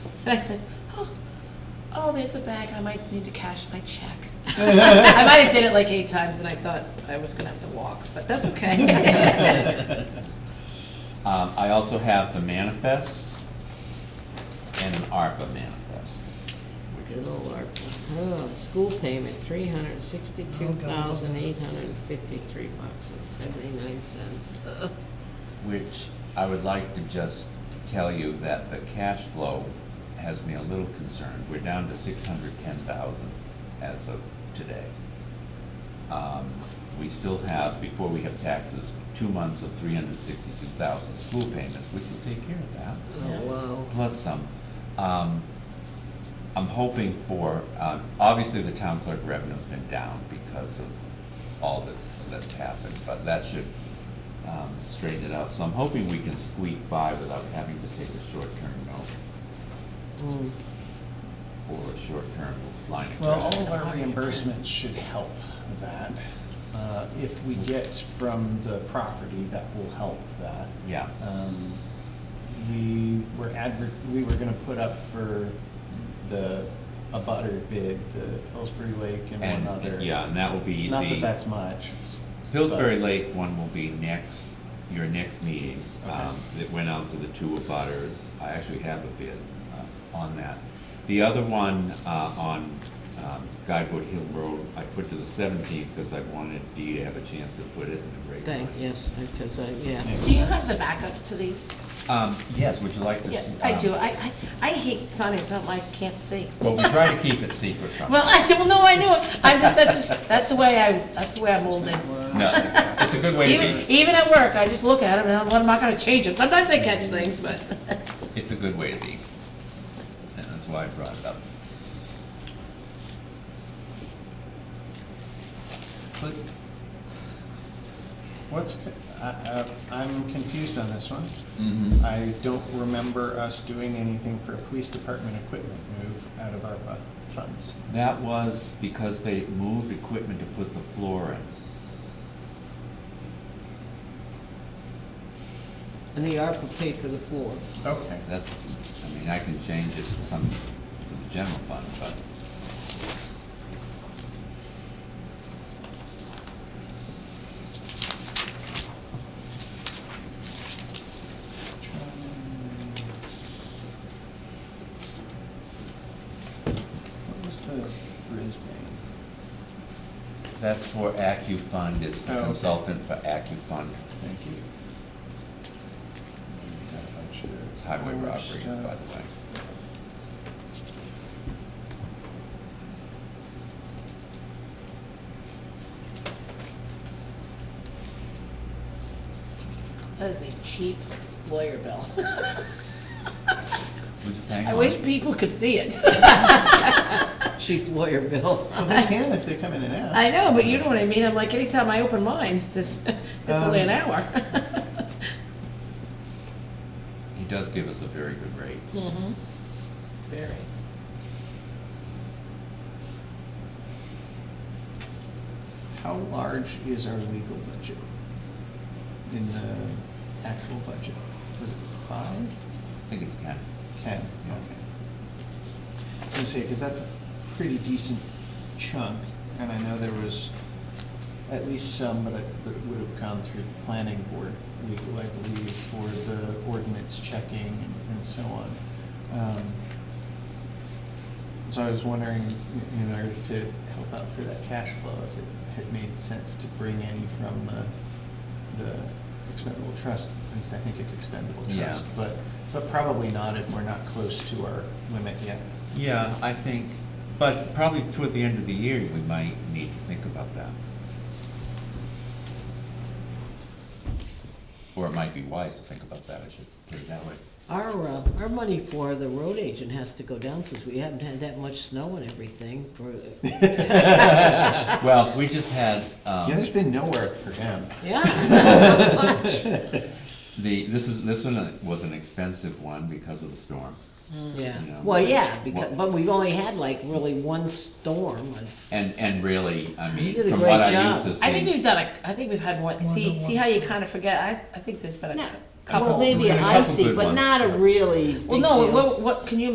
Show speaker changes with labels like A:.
A: And I said, oh, oh, there's a bag, I might need to cash my check. I might have did it like eight times and I thought I was gonna have to walk, but that's okay.
B: Um, I also have the manifest and an ARPA manifest.
C: Good old ARPA. Oh, school payment, three hundred and sixty-two thousand, eight hundred and fifty-three bucks and seventy-nine cents. Oh,
B: Which I would like to just tell you that the cash flow has me a little concerned. We're down to six hundred ten thousand as of today. Um, We still have, before we have taxes, two months of three hundred sixty-two thousand school payments. We can take care of that.
C: Oh, wow.
B: plus some. Um, I'm hoping for, um, obviously, the town clerk revenue's been down because of all this that's happened, but that should um, straighten it out. So I'm hoping we can squeak by without having to take a short-term note
C: Mm.
D: Hmm.
B: or a short-term line of
D: Well,
B: credit.
D: all of our reimbursements should help that. Uh, If we get from the property, that will help that.
B: Yeah.
D: Um, We were adver, we were gonna put up for the, a butter bid, the Pillsbury Lake and one
B: And,
D: other.
B: yeah, and that will be
D: Not that
B: the-
D: that's much. it's-
B: Pillsbury
D: but-
B: Lake one will be next, your next meeting.
D: Okay.
B: Um, It went out to the two abutters. I actually have a bid uh, on that. The other one uh, on um, Guidewood Hill Road, I put to the seventeenth because I wanted Dee to have a chance to put it in the rate.
C: Thank, yes, because I, yeah.
D: Makes
A: Do you have the
D: sense.
A: backup to these?
B: Um, Yes, would you like to
A: Yeah,
B: see?
A: I
B: um,
A: do, I, I, I hate signing something I can't see.
B: Well, we try to keep it secret from
A: Well,
B: you.
A: I don't know, I know, I'm just, that's just, that's the way I, that's the way I'm molded.
B: No, it's a good way to
A: Even,
B: be,
A: even at work, I just look at them and I'm, I'm not gonna change it. Sometimes I catch things, but.
B: it's a good way to be. And that's why I brought it up.
D: But What's, I, I- I'm confused on this one.
B: Mhm.
D: I don't remember us doing anything for a police department equipment move out of ARPA funds.
B: That was because they moved equipment to put the floor in.
C: And the ARPA paid for the floor.
D: Okay.
B: That's, I mean, I can change it to some, to the general fund, but
D: What was the Brisbane?
B: that's for AccuFund, it's
D: Oh,
B: the
D: okay.
B: consultant for AccuFund.
D: Thank you.
B: It's highway robbery,
D: uh,
B: by the way.
A: That is a cheap lawyer bill.
B: We'll just hang
A: I
B: on.
A: wish people could see it.
C: Cheap lawyer bill.
D: Well, they can if they come in and ask.
A: I know, but you know what I mean. I'm like, anytime I open mine, this, it's only an
D: Um.
A: hour.
B: He does give us a very good rate.
C: Mm-hmm.
A: Mhm. Very.
D: How large is our legal budget in the actual budget? Was it five,
B: I think it's ten.
D: ten?
B: Yeah.
D: Okay. I was gonna because that's a pretty decent chunk, and I know there was at least some, but it but it would have gone through the planning board, legal, I believe, for the ordinance checking and and so on. Um, So I was wondering, in- in order to help out for that cash flow, if it had made sense to bring any from the, the expendable trust, at least I think it's expendable
B: Yeah.
D: trust, but, but probably not if we're not close to our limit yet.
B: Yeah, I think, but probably toward the end of the year, we might need to think about that. Or it might be wise to think about that, I should put it that way.
C: Our, uh, our money for the road agent has to go down since we haven't had that much snow and everything for,
B: Well, we just had, um.
D: Yeah, there's been no work for him.
C: yeah.
B: The, this is, this one was an expensive one because of the storm.
C: Yeah,
B: Yeah.
C: well, yeah, because,
B: Well-
C: but we've only had like really one storm, was,
B: And, and really, I mean,
C: did a
B: from
C: great
B: what I
C: job.
B: used to
A: I think
B: see,
A: we've done a, I think we've had one, see, see how you kind of forget? I, I think there's been a
C: No.
A: cou- couple.
C: well,
B: There's
C: maybe
B: been a couple
C: icy,
B: good
C: but
B: ones.
C: not a really big
A: Well, no,
C: deal.
A: what, what, can you